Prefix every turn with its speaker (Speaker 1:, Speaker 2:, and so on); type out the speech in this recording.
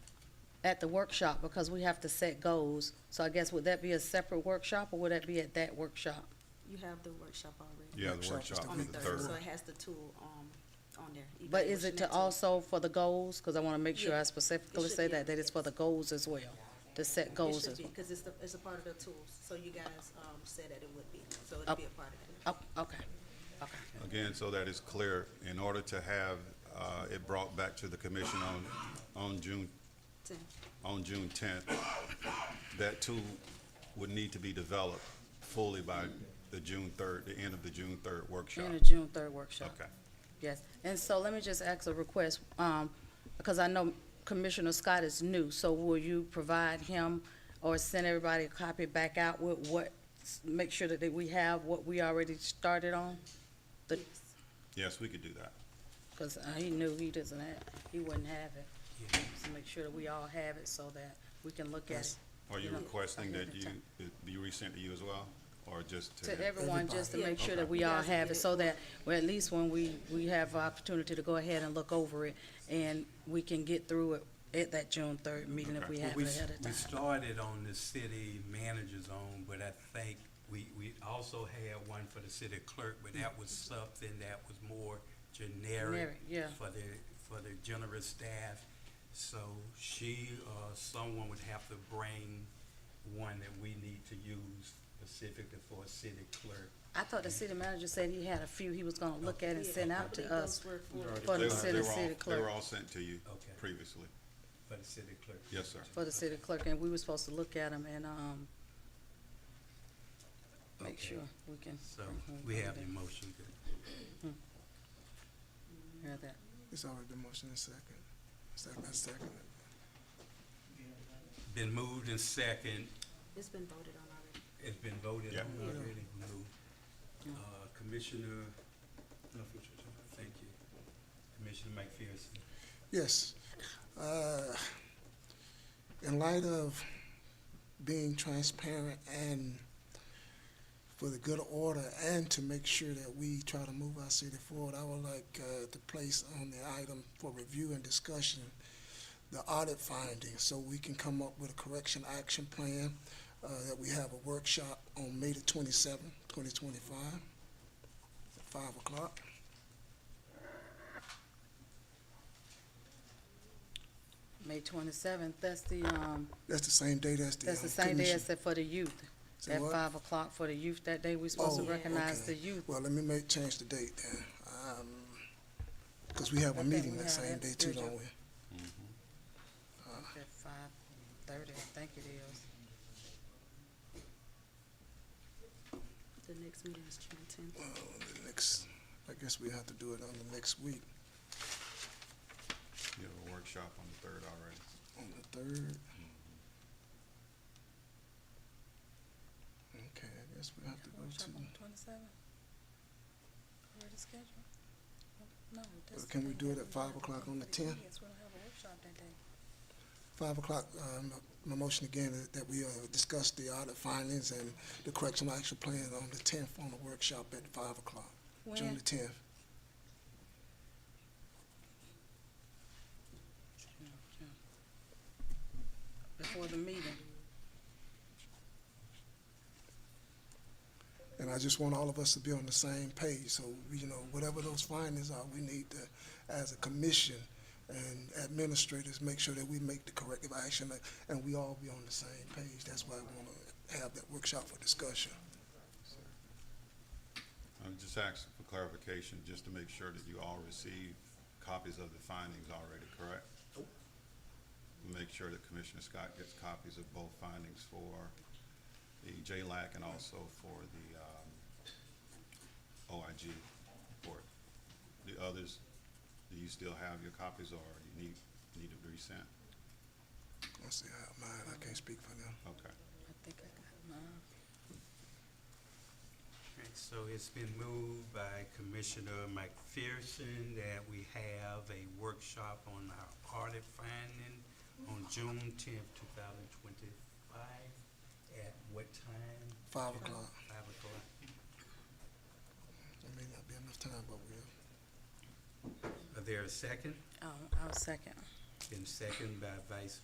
Speaker 1: at the workshop because we have to set goals. So I guess would that be a separate workshop or would that be at that workshop?
Speaker 2: You have the workshop already.
Speaker 3: Yeah, the
Speaker 4: Workshop is
Speaker 3: workshop
Speaker 4: the
Speaker 2: On
Speaker 3: is
Speaker 2: the
Speaker 3: the
Speaker 2: third,
Speaker 3: third.
Speaker 2: so it has the tool, um, on there.
Speaker 1: But is it to
Speaker 2: evaluation tool.
Speaker 1: also for the goals? Cause I wanna make sure I
Speaker 2: Yeah.
Speaker 1: specifically
Speaker 2: It should
Speaker 1: say
Speaker 2: be.
Speaker 1: that, that it's for the goals as well, to set goals
Speaker 2: It
Speaker 1: as
Speaker 2: should
Speaker 1: well.
Speaker 2: be, cause it's the, it's a part of the tools, so you guys, um, said that it would be, so
Speaker 1: Oh.
Speaker 2: it'd be a part of it.
Speaker 1: Oh, okay, okay.
Speaker 3: Again, so that is clear, in order to have uh, it brought back to the commission on, on June,
Speaker 2: Ten.
Speaker 3: on June tenth, that tool would need to be developed fully by the June third, the end of the June third workshop.
Speaker 1: In the June third workshop.
Speaker 3: Okay.
Speaker 1: Yes, and so let me just ask a request, um, because I know Commissioner Scott is new, so will you provide him or send everybody a copy back out with what, make sure that we have what we already started on? The,
Speaker 3: Yes, we could do that.
Speaker 1: because he knew he doesn't have, he wouldn't have it. So make sure that we all have it so that we can look at it.
Speaker 3: Are you
Speaker 1: Yeah.
Speaker 3: requesting that you,
Speaker 1: Okay.
Speaker 3: it be resent to you as well, or just to?
Speaker 1: To everyone, just to
Speaker 2: Everybody.
Speaker 1: make sure that
Speaker 3: Okay.
Speaker 1: we
Speaker 2: You
Speaker 1: all
Speaker 2: guys can
Speaker 1: have
Speaker 2: get
Speaker 1: it,
Speaker 2: it.
Speaker 1: so that, well, at least when we, we have opportunity to go ahead and look over it, and we can get through it at that June third meeting if
Speaker 3: Okay.
Speaker 1: we have
Speaker 5: We,
Speaker 1: it
Speaker 5: s-
Speaker 1: ahead of
Speaker 5: we
Speaker 1: time.
Speaker 5: started on the city manager's own, but I think we, we also had one for the city clerk, but that was something that was more generic.
Speaker 1: Generic, yeah.
Speaker 5: For the, for the generous staff, so she, uh, someone would have to bring one that we need to use specifically for a city clerk.
Speaker 1: I thought the city manager said he had a few he was gonna look at and
Speaker 2: Yeah,
Speaker 1: send
Speaker 2: I
Speaker 1: out to
Speaker 2: believe
Speaker 1: us.
Speaker 2: those were for-
Speaker 1: For
Speaker 3: Oh, They
Speaker 1: the
Speaker 3: were- they
Speaker 1: city,
Speaker 3: were all-
Speaker 1: city
Speaker 3: They were
Speaker 1: clerk,
Speaker 3: all sent to you
Speaker 5: Okay.
Speaker 3: previously.
Speaker 5: for the city clerk.
Speaker 3: Yes, sir.
Speaker 1: for the city clerk, and we were supposed to look at them and, um, make
Speaker 5: Okay.
Speaker 1: sure we can.
Speaker 5: So
Speaker 1: Mm-hmm.
Speaker 5: we have the motion, good.
Speaker 1: Hear that.
Speaker 4: It's already been motion and second. Second, I second it.
Speaker 5: Been moved and second,
Speaker 2: It's been voted on already.
Speaker 5: It's been voted
Speaker 3: Yeah.
Speaker 5: on already, Lou. Uh, Commissioner, no, future, thank you. Commissioner McPherson.
Speaker 4: Yes. Uh, In light of being transparent and for the good order and to make sure that we try to move our city forward, I would like uh, to place on the item for review and discussion the audit findings so we can come up with a correction action plan uh, that we have a workshop on May the twenty-seventh, twenty twenty-five, five o'clock.
Speaker 1: May twenty-seventh, that's the, um,
Speaker 4: That's the same date as the.
Speaker 1: that's the
Speaker 4: um,
Speaker 1: same day
Speaker 4: commission.
Speaker 1: as the, for the youth.
Speaker 4: Say
Speaker 1: At
Speaker 4: what?
Speaker 1: five o'clock for the youth that day, we supposed to
Speaker 4: Oh,
Speaker 1: recognize
Speaker 4: okay.
Speaker 1: the youth.
Speaker 4: Well, let me make, change the date then, um, because we have
Speaker 1: I
Speaker 4: a
Speaker 1: think
Speaker 4: meeting
Speaker 1: we
Speaker 4: that
Speaker 1: have
Speaker 4: same
Speaker 1: that
Speaker 4: day too, don't
Speaker 1: scheduled.
Speaker 4: we?
Speaker 1: At five thirty, I think it is.
Speaker 2: The next meeting is June tenth.
Speaker 4: Well, the next, I guess we have to do it on the next week,
Speaker 3: You have a workshop on the third already.
Speaker 4: on the third. Okay, I guess we have to go to,
Speaker 1: Twenty-seven? Already scheduled? No.
Speaker 4: that's can the we day do it that at we five have- o'clock on the 10th?
Speaker 1: Yes, we don't have a workshop that day.
Speaker 4: five o'clock, um, my motion again is that we, uh, discuss the audit findings and the correction action plan on the tenth on the workshop at five o'clock, June
Speaker 1: When?
Speaker 4: the tenth.
Speaker 1: Before the meeting.
Speaker 4: And I just want all of us to be on the same page, so, you know, whatever those findings are, we need to, as a commission and administrators, make sure that we make the corrective action, and we all be on the same page, that's why I wanna have that workshop for discussion.
Speaker 3: I'm just asking for clarification, just to make sure that you all receive copies of the findings already, correct? Make sure that Commissioner Scott gets copies of both findings for the JLAC and also for the, um, OIG report. The others, do you still have your copies or you need, need to be sent?
Speaker 4: I see how mine, I can't speak for them.
Speaker 3: Okay.
Speaker 1: I think I got mine.
Speaker 5: Alright, So it's been moved by Commissioner McPherson that we have a workshop on our audit finding on June tenth, two thousand twenty-five. At what time?
Speaker 4: Five o'clock.
Speaker 5: Five o'clock.
Speaker 4: There may not be enough time, but we'll,
Speaker 5: Are there a second?
Speaker 1: Oh, I'll second.
Speaker 5: Been seconded by Vice